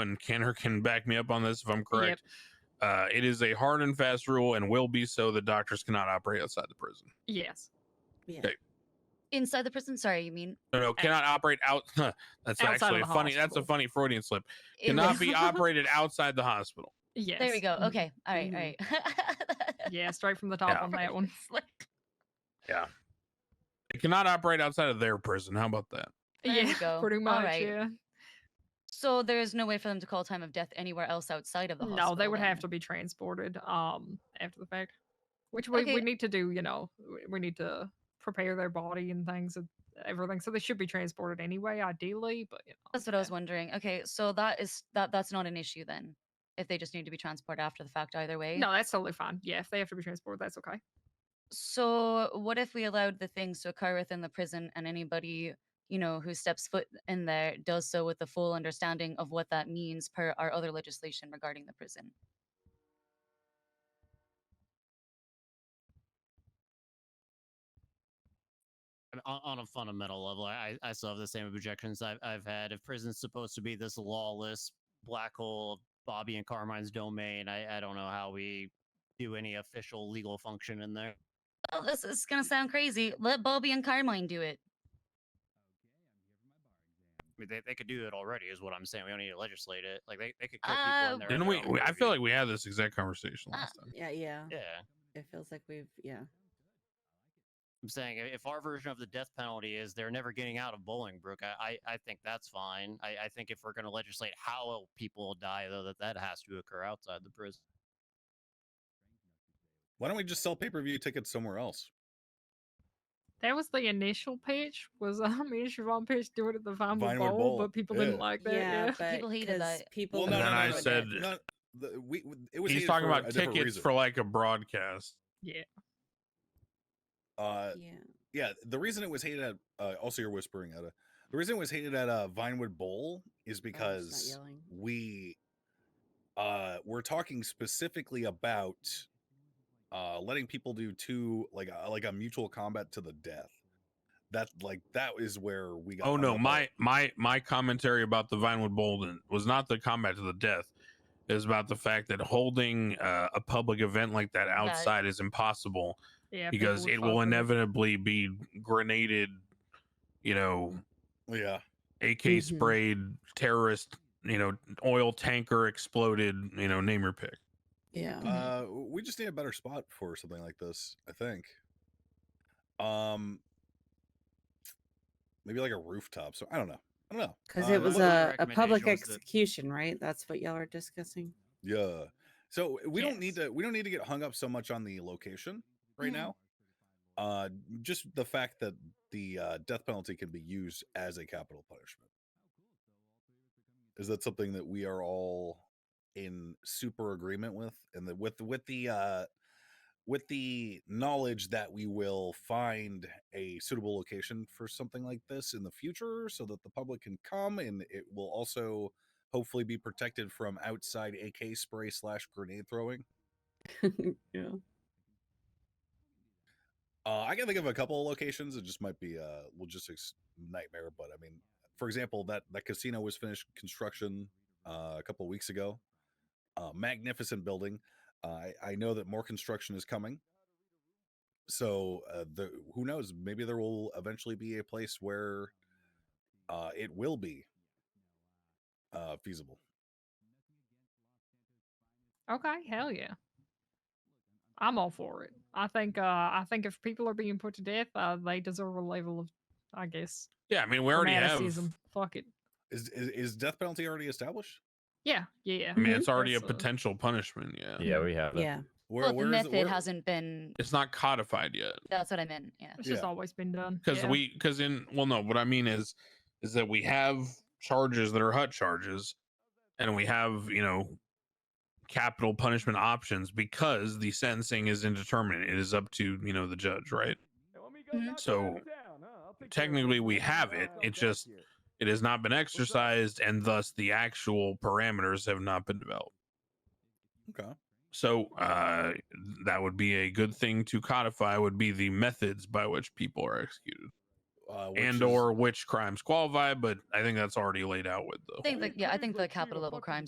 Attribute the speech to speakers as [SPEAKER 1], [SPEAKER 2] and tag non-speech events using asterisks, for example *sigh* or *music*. [SPEAKER 1] and Kenner can back me up on this if I'm correct. Uh, it is a hard and fast rule and will be so. The doctors cannot operate outside the prison.
[SPEAKER 2] Yes.
[SPEAKER 3] Yeah.
[SPEAKER 1] Okay.
[SPEAKER 3] Inside the prison? Sorry, you mean
[SPEAKER 1] No, no, cannot operate out. *laughs* that's
[SPEAKER 2] Outside of
[SPEAKER 1] actually
[SPEAKER 2] the
[SPEAKER 1] a funny. That's a
[SPEAKER 2] hospital.
[SPEAKER 1] funny Freudian slip.
[SPEAKER 3] in
[SPEAKER 1] Cannot
[SPEAKER 2] *laughs*
[SPEAKER 3] the-
[SPEAKER 1] be operated outside the hospital.
[SPEAKER 2] Yes. Mm-hmm, Mm.
[SPEAKER 3] There we go. Okay. All right. All right. *laughs*
[SPEAKER 2] Yeah, straight from the top
[SPEAKER 1] Yeah.
[SPEAKER 2] on that one. *laughs*
[SPEAKER 1] It cannot operate outside of their prison. How about that?
[SPEAKER 3] There we
[SPEAKER 2] yeah,
[SPEAKER 3] go.
[SPEAKER 2] pretty
[SPEAKER 3] All
[SPEAKER 2] much.
[SPEAKER 3] right.
[SPEAKER 2] Yeah.
[SPEAKER 3] So there is no way for them to call time of death anywhere else outside of the hospital.
[SPEAKER 2] No, they would have
[SPEAKER 3] then.
[SPEAKER 2] to be transported um after the fact, which we,
[SPEAKER 3] Okay.
[SPEAKER 2] we need to do. You know, we- we need to prepare their body and things and everything, so they should be transported anyway, ideally. But you know,
[SPEAKER 3] That's what I was wondering. Okay, so that is that. That's not an issue then, if they just need to be transported after the fact either way.
[SPEAKER 2] No, that's totally fine. Yeah, if they have to be transported, that's okay.
[SPEAKER 3] So what if we allowed the things to occur within the prison, and anybody you know who steps foot in there does so with the full understanding of what that means per our other legislation regarding the prison?
[SPEAKER 4] I mean, on, on a fundamental level, I, I still have the same objections I've, I've had. If prison's supposed to be this lawless black hole of Bobby and Carmine's domain, I, I don't know how we do any official legal function in there.
[SPEAKER 3] Well, this is gonna sound crazy. Let Bobby and Carmine do it.
[SPEAKER 4] I mean, they, they could do it already, is what I'm saying. We don't need to legislate it. Like they, they could kill people
[SPEAKER 3] Uh,
[SPEAKER 4] in there.
[SPEAKER 1] Didn't we? we- I feel like we had this exact conversation
[SPEAKER 3] Uh,
[SPEAKER 1] last
[SPEAKER 2] Ah.
[SPEAKER 1] time.
[SPEAKER 5] Yeah, yeah.
[SPEAKER 4] yeah.
[SPEAKER 5] It feels like we've yeah.
[SPEAKER 4] I'm saying i- if our version of the death penalty is they're never getting out of Bolingbrook, I, I, I think that's fine. I, I think if we're going to legislate how people die, though, that that has to occur outside the prison.
[SPEAKER 6] Why don't we just sell pay per view tickets somewhere else?
[SPEAKER 2] That was the initial pitch. Was *laughs* I mean, Siobhan pitch do it at the Vinewood,
[SPEAKER 6] Vinewood
[SPEAKER 2] Bowl,
[SPEAKER 6] Bowl,
[SPEAKER 2] but people
[SPEAKER 6] yeah.
[SPEAKER 2] didn't like that.
[SPEAKER 5] yeah,
[SPEAKER 2] Yeah.
[SPEAKER 5] but
[SPEAKER 3] People hated
[SPEAKER 5] 'cause
[SPEAKER 3] that.
[SPEAKER 5] People.
[SPEAKER 6] Well,
[SPEAKER 1] And
[SPEAKER 6] no, no,
[SPEAKER 1] then
[SPEAKER 6] no,
[SPEAKER 1] I
[SPEAKER 6] no,
[SPEAKER 1] said-
[SPEAKER 6] no, the, we, it was
[SPEAKER 1] He's
[SPEAKER 6] hated
[SPEAKER 1] talking
[SPEAKER 6] for
[SPEAKER 1] about
[SPEAKER 6] a different
[SPEAKER 1] tickets
[SPEAKER 6] reason.
[SPEAKER 1] for like a broadcast.
[SPEAKER 6] Uh,
[SPEAKER 5] yeah.
[SPEAKER 6] yeah, the reason it was hated at uh, also you're whispering at the reason it was hated at uh, Vinewood Bowl is
[SPEAKER 5] Oh, I'm just
[SPEAKER 6] because
[SPEAKER 5] not yelling.
[SPEAKER 6] we uh we're talking specifically about uh letting people do two like a, like a mutual combat to the death that like that is where we got
[SPEAKER 1] Oh
[SPEAKER 6] hung
[SPEAKER 1] no,
[SPEAKER 6] up on
[SPEAKER 1] my
[SPEAKER 6] it.
[SPEAKER 1] my my commentary about the Vinewood Bolden was not the combat to the death. It was about the fact that holding uh, a public event like that outside is impossible
[SPEAKER 2] yeah people
[SPEAKER 1] because
[SPEAKER 2] would
[SPEAKER 1] it
[SPEAKER 2] fall
[SPEAKER 1] will
[SPEAKER 2] for
[SPEAKER 1] inevitably be grenaded, you know,
[SPEAKER 6] yeah
[SPEAKER 1] AK
[SPEAKER 5] Mhm.
[SPEAKER 1] sprayed, terrorist, you know, oil tanker exploded, you know, name your pick.
[SPEAKER 5] Yeah.
[SPEAKER 6] uh we just need a better spot for something like this i think um maybe like a rooftop so i don't know i don't know
[SPEAKER 5] Because
[SPEAKER 6] Uh,
[SPEAKER 5] it was
[SPEAKER 4] what
[SPEAKER 5] a,
[SPEAKER 4] my
[SPEAKER 5] a public
[SPEAKER 4] recommendation was that-
[SPEAKER 5] execution, right? That's what y'all are discussing. *laughs*
[SPEAKER 6] Yeah. So we don't need
[SPEAKER 2] Yes.
[SPEAKER 6] to we don't need to get hung up so much on the location right
[SPEAKER 3] Mhm.
[SPEAKER 6] now. Uh just the fact that the uh, death penalty can be used as a capital punishment. Is that something that we are all in super agreement with and that with with the uh with the knowledge that we will find a suitable location for something like this in the future so that the public can come and it will also hopefully be protected from outside AK spray slash grenade throwing.
[SPEAKER 5] yeah.
[SPEAKER 6] Uh, I can think of a couple of locations. It just might be a logistics nightmare, but I mean, for example, that that casino was finished construction uh, a couple of weeks ago. Uh, magnificent building. Uh, I, I know that more construction is coming. So uh, the who knows? Maybe there will eventually be a place where uh, it will be uh, feasible.
[SPEAKER 2] it. Okay, hell yeah. I'm all for it. I think uh I think if people are being put to death, uh, they deserve a level of I guess
[SPEAKER 1] Yeah, I mean, we already have.
[SPEAKER 2] fanaticism. Fuck it.
[SPEAKER 6] Is, is is death penalty already established?
[SPEAKER 2] Yeah, yeah.
[SPEAKER 1] I mean, it's already a
[SPEAKER 2] That's, uh,
[SPEAKER 1] potential punishment. Yeah,
[SPEAKER 7] Yeah, we have it.
[SPEAKER 5] Yeah.
[SPEAKER 6] Where,
[SPEAKER 3] Well, the
[SPEAKER 6] where is it-
[SPEAKER 3] method
[SPEAKER 6] where-
[SPEAKER 3] hasn't been.
[SPEAKER 1] it's not codified yet.
[SPEAKER 3] That's what I meant. Yeah.
[SPEAKER 2] It's just
[SPEAKER 6] Yeah.
[SPEAKER 2] always been done.
[SPEAKER 1] because
[SPEAKER 2] yeah.
[SPEAKER 1] we because in well no what i mean is is that we have charges that are hut charges and we have you know capital punishment options because the sentencing is indeterminate it is up to you know the judge right
[SPEAKER 3] Mhm.
[SPEAKER 1] So, technically we have it, it just- it has not been exercised and thus the actual parameters have not been developed
[SPEAKER 6] Okay.
[SPEAKER 1] so uh that would be a good thing to codify would be the methods by which people are executed
[SPEAKER 6] uh, which
[SPEAKER 1] and
[SPEAKER 6] is-
[SPEAKER 1] or which crimes qualify, but I think that's already laid out with the
[SPEAKER 3] I think the, yeah, I think the capital level crimes